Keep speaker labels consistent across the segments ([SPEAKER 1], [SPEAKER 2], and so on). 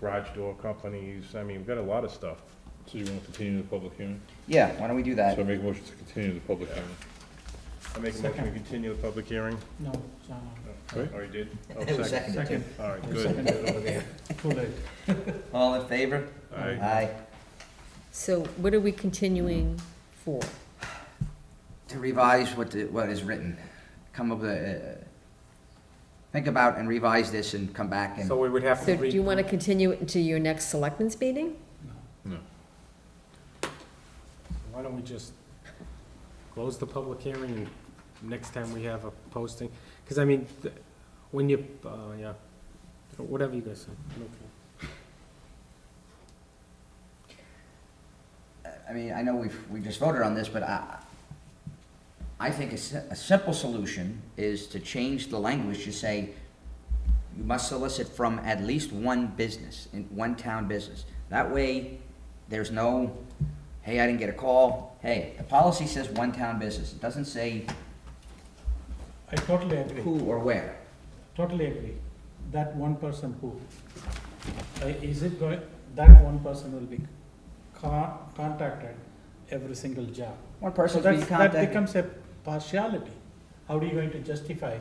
[SPEAKER 1] garage door companies, I mean, we've got a lot of stuff.
[SPEAKER 2] So you want to continue the public hearing?
[SPEAKER 3] Yeah, why don't we do that?
[SPEAKER 2] So I make a motion to continue the public hearing.
[SPEAKER 1] I make a motion to
[SPEAKER 4] Second.
[SPEAKER 1] continue the public hearing.
[SPEAKER 4] No, uh, it's not on.
[SPEAKER 2] Right.
[SPEAKER 1] Oh, you did? Oh,
[SPEAKER 3] It was
[SPEAKER 1] second.
[SPEAKER 3] seconded, too.
[SPEAKER 4] Second.
[SPEAKER 1] All right,
[SPEAKER 4] Second.
[SPEAKER 1] good.
[SPEAKER 4] Too late.
[SPEAKER 3] All in favor?
[SPEAKER 1] Aye.
[SPEAKER 3] Aye.
[SPEAKER 5] So what are we continuing for?
[SPEAKER 3] To revise what, the- what is written, come up with, a- uh, think about and revise this and come back and,
[SPEAKER 6] So we would have
[SPEAKER 5] So
[SPEAKER 6] to
[SPEAKER 5] do you
[SPEAKER 6] re,
[SPEAKER 5] want to continue it into your next selectmen's meeting?
[SPEAKER 2] No.
[SPEAKER 6] why don't we just close the public hearing and next time we have a posting? Because I mean, th- when you, uh, yeah, whatever you guys say. okay.
[SPEAKER 3] I mean, I know we've, we just voted on this, but I, I think a, si- a simple solution is to change the language to say, you must solicit from at least one business, in one town business. That way, there's no, hey, I didn't get a call, hey, the policy says one town business, it doesn't say
[SPEAKER 4] I totally agree,
[SPEAKER 3] who or where.
[SPEAKER 4] totally agree. That one person who, Uh, is it going, that one person will be con- contacted every single job.
[SPEAKER 3] One
[SPEAKER 4] So
[SPEAKER 3] person's being
[SPEAKER 4] that's, that
[SPEAKER 3] contacted.
[SPEAKER 4] becomes a partiality. How are you going to justify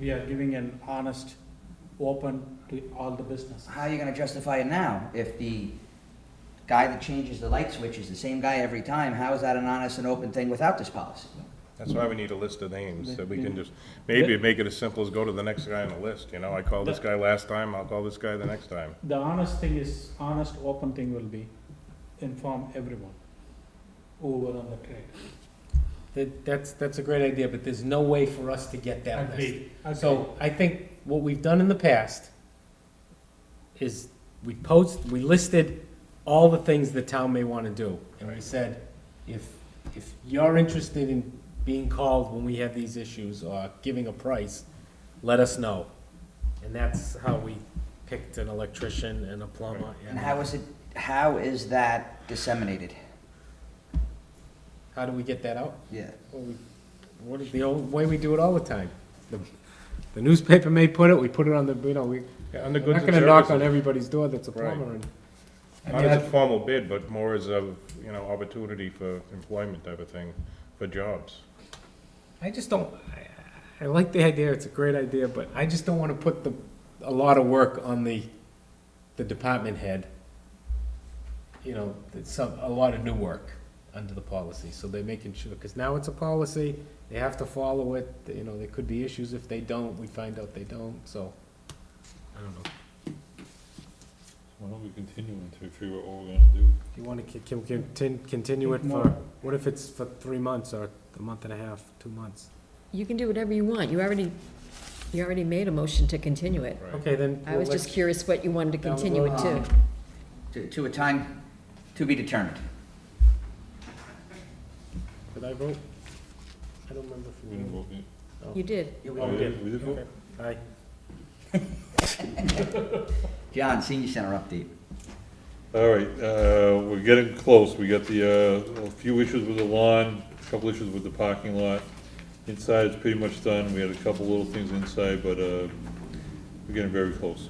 [SPEAKER 4] we are giving an honest, open to all the business?
[SPEAKER 3] How are you gonna justify it now? If the guy that changes the light switch is the same guy every time, how is that an honest and open thing without this policy?
[SPEAKER 1] That's why we need a list of names, that we can just, maybe make it as simple as go to the next guy on the list, you know? I called this guy last time, I'll call this guy the next time.
[SPEAKER 4] The honest thing is, honest, open thing will be inform everyone who were on the trade.
[SPEAKER 6] That- That's, that's a great idea, but there's no way for us to get that list.
[SPEAKER 4] Agreed.
[SPEAKER 6] So I think what we've done in the past is we post, we listed all the things the town may want to do. And we said, if, if you're interested in being called when we have these issues or giving a price, let us know. And that's how we picked an electrician and a plumber.
[SPEAKER 3] And how is it, how is that disseminated?
[SPEAKER 6] How do we get that out?
[SPEAKER 3] Yeah.
[SPEAKER 6] Well, we- What is the old way we do it all the time? The- The newspaper may put it, we put it on the, you know, we,
[SPEAKER 1] Yeah, Under
[SPEAKER 6] We're
[SPEAKER 1] goods
[SPEAKER 6] not
[SPEAKER 1] and
[SPEAKER 6] gonna knock on
[SPEAKER 1] services,
[SPEAKER 6] everybody's door that's a
[SPEAKER 1] Right.
[SPEAKER 6] plumber and. I
[SPEAKER 1] not
[SPEAKER 6] mean,
[SPEAKER 1] as
[SPEAKER 6] I-
[SPEAKER 1] a formal bid, but more as a, you know, opportunity for employment type of thing, for jobs.
[SPEAKER 6] I just don't, I- I, I like the idea, it's a great idea, but I just don't wanna put the, a lot of work on the, the department head. You know, it's some, a lot of new work under the policy, so they're making sure, cause now it's a policy, they have to follow it, you know, there could be issues if they don't, we find out they don't, so. I don't know,
[SPEAKER 2] Why don't we continue until we figure out what we're gonna do?
[SPEAKER 6] do you wanna, ki- can, we contin- continue it for,
[SPEAKER 4] More.
[SPEAKER 6] what if it's for three months or a month and a half, two months?
[SPEAKER 5] You can do whatever you want. You already, you already made a motion to continue it.
[SPEAKER 1] Right.
[SPEAKER 6] Okay, then.
[SPEAKER 5] I was
[SPEAKER 6] we'll
[SPEAKER 5] just
[SPEAKER 6] let-
[SPEAKER 5] curious what you wanted to
[SPEAKER 6] Down the
[SPEAKER 5] continue it to.
[SPEAKER 6] road.
[SPEAKER 3] To, to a time to be determined.
[SPEAKER 6] Did I vote? I don't remember if
[SPEAKER 2] We
[SPEAKER 6] we
[SPEAKER 2] didn't
[SPEAKER 6] voted.
[SPEAKER 2] vote yet.
[SPEAKER 5] You did.
[SPEAKER 2] Oh, we
[SPEAKER 6] Okay.
[SPEAKER 2] did, we did vote?
[SPEAKER 6] Aye.
[SPEAKER 3] John, senior center update.
[SPEAKER 2] All right, uh, we're getting close. We got the, uh, a few issues with the lawn, a couple issues with the parking lot. Inside is pretty much done. We had a couple little things inside, but, uh, we're getting very close.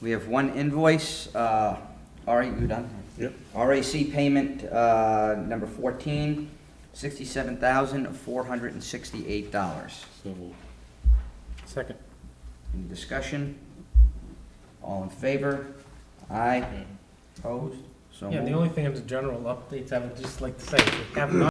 [SPEAKER 3] We have one invoice, uh, all right, you done?
[SPEAKER 2] Yep.
[SPEAKER 3] RAC payment, uh, number fourteen, sixty-seven thousand, four hundred and sixty-eight dollars.
[SPEAKER 2] So we'll
[SPEAKER 6] Second.
[SPEAKER 3] Any discussion? All in favor? Aye. Opposed? So
[SPEAKER 6] Yeah, the
[SPEAKER 3] moved.
[SPEAKER 6] only thing is general updates, I would just like to say, if you have not